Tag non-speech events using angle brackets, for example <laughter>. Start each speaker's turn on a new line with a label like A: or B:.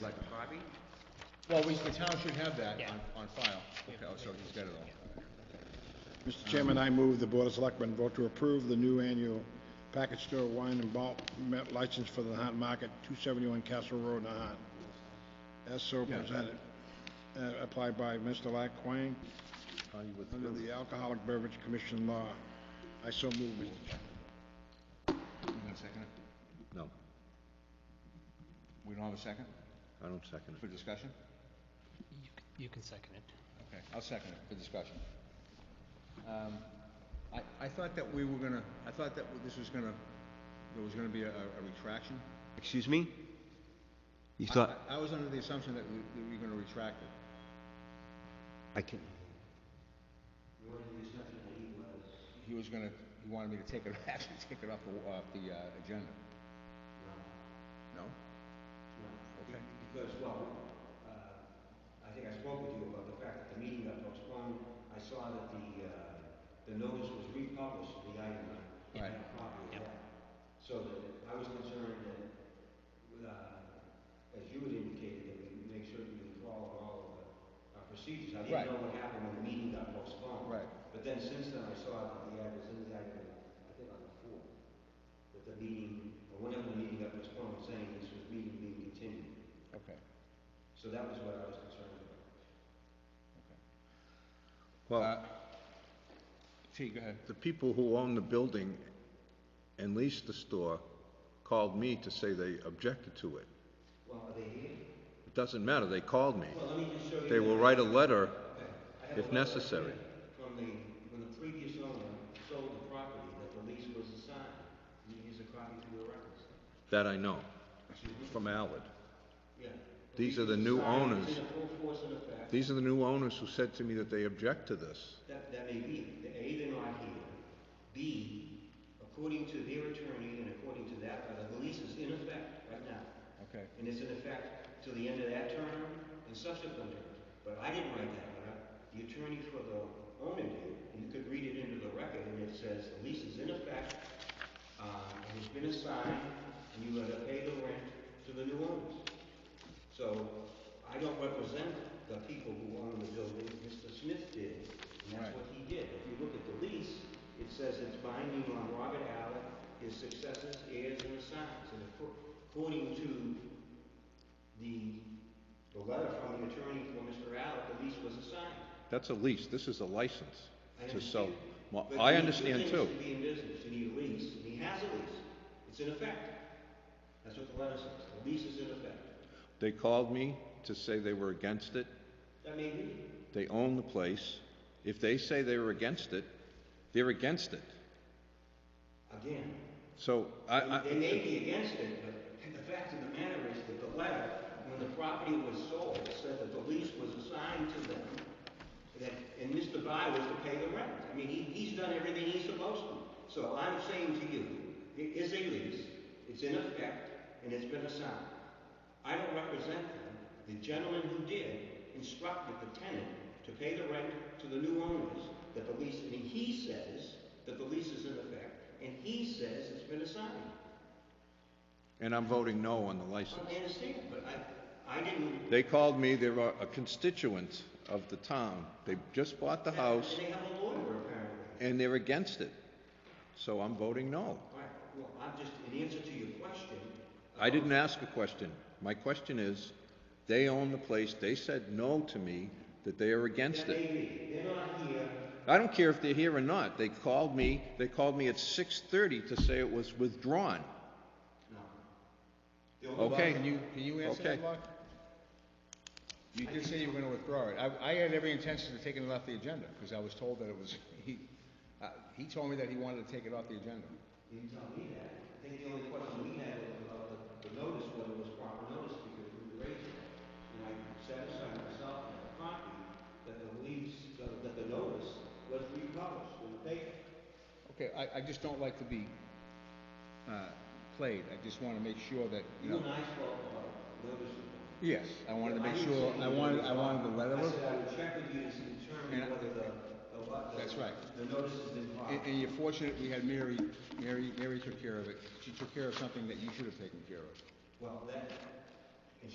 A: like a copy?
B: Well, we, the town should have that
C: Yeah.
B: on, on file. Okay, oh, so he's got it all.
D: Mr. Chairman, I move the Board of Selectmen vote to approve the new annual package store wine and malt me- license for the Nahat Market, 271 Castle Road, Nahat, as so presented, uh, applied by Mr. Lack Quang under the Alcoholic Beverage Commission law. I so move, Mr. Chairman.
B: You gonna second it?
A: No,
B: We don't have a second
A: I don't second
B: for discussion?
C: You c- You can second it.
B: Okay, I'll second it for discussion. Um, I, I thought that we were gonna, I thought that this was gonna, there was gonna be a, a retraction.
A: Excuse me? You
B: I-
A: thought,
B: I I was under the assumption that we, that we were gonna retract it.
A: I can,
B: He was gonna, he wanted me to take it, <laughs> actually take it off the, off the, uh, agenda. No. No? Okay.
E: Because, well, uh, I think I spoke with you about the fact that the meeting got postponed. I saw that the, uh, the notice was republished, the item, I
B: Right.
E: had a copy of that. So that, I was concerned that, uh, as you had indicated, that we make certain we follow all of the, our procedures. I
B: Right.
E: didn't know what happened when the meeting got postponed.
B: Right.
E: But then since then, I saw that the ad was in the item, I think on the fourth, that the meeting, or whenever the meeting got postponed, saying this was meeting being continued.
B: Okay.
E: So that was what I was concerned about.
A: well,
B: Uh, T, go ahead.
A: the people who own the building and lease the store called me to say they objected to it.
E: Well, are they here?
A: It doesn't matter, they called me.
E: Well, let me just show you.
A: They will
E: that.
A: write a letter
E: Okay. I have a
A: if
E: letter right
A: necessary.
E: here From the, when the previous owner sold the property, that the lease was assigned. And Here's a copy for your records.
A: That I know, from Allard.
E: Yeah.
A: These
E: lease
A: are the
E: was
A: new
E: assigned,
A: owners.
E: It's in full force and effect.
A: These are the new owners who said to me that they object to this.
E: That, that may be, The A, they're not here. B, according to their attorney and according to that, letter, the lease is in effect right now.
B: Okay.
E: and it's in effect till the end of that term and subsequent terms. But I didn't write that letter, the attorney for the owner did, and you could read it into the record, and it says, the lease is in effect, um, and it's been assigned, and you are to pay the rent to the new owners. So, I don't represent the people who own the building, Mr. Smith did, and that's
B: Right.
E: what he did. If you look at the lease, it says it's binding on Robert Allen, his successors, heirs, and assigns, and acco- according to the, the letter from the attorney for Mr. Allen, the lease was assigned.
A: That's a lease, this is a license
E: I
A: to sell.
E: understand.
A: Well,
E: But
A: I
E: you need two
A: understand
E: things
A: too.
E: to be in business, you need a lease, and he has a lease, it's in effect. That's what the letter says, the lease is in effect.
A: They called me to say they were against it.
E: That may be,
A: They own the place. If they say they were against it, they're against it.
E: again,
A: So I,
E: They may
A: I,
E: be against it, but the fact of the matter is that the letter, when the property was sold, said that the lease was assigned to them, that, and Mr. By was to pay the rent. I mean, he, he's done everything he's supposed to. So I'm saying to you, it is a lease, it's in effect, and it's been assigned. I don't represent them. The gentleman who did instructed the tenant to pay the rent to the new owners, that the lease, and he says that the lease is in effect, and he says it's been assigned.
A: and I'm voting no on the license.
E: I understand, but I, I didn't.
A: They called me, they were a constituent of the town. They just bought the house
E: They have a lawyer apparently.
A: and they're against it. So I'm voting no.
E: All right, well, I'm just, in answer to your question.
A: I
E: uh,
A: didn't ask a question. My question is, they own the place, they said no to me, that they are against
E: That
A: it.
E: may be, they're not here,
A: I don't care if they're here or not. They called me, they called me at 6:30 to say it was withdrawn.
E: no.
B: Bob,
A: Okay.
B: Can you, can you answer
A: Okay.
B: that, Bob? You did say you were gonna withdraw it. I, I had every intention of taking it off the agenda, because I was told that it was, <laughs> he, uh, he told me that he wanted to take it off the agenda.
E: You didn't tell me that. I think the only question we had was about the, the notice, whether it was proper notice, because we raised it. And I satisfied myself and the copy that the lease, that that the notice was republished in the paper.
B: Okay, I, I just don't like to be, uh, played. I just wanna make sure that, you
E: You
B: know.
E: and I spoke about notice. of-
B: Yes, I wanted to make
E: didn't
B: sure,
E: say
B: I
E: you
B: wanted,
E: were
B: I wanted the letter
E: wrong. I
B: of,
E: said I would check with you to determine
B: And I-
E: whether the, the, what the.
B: That's right.
E: The notice has been
B: and,
E: filed.
B: and you're fortunate we had Mary, Mary, Mary took care of it. She took care of something that you should have taken care of.
E: Well, that,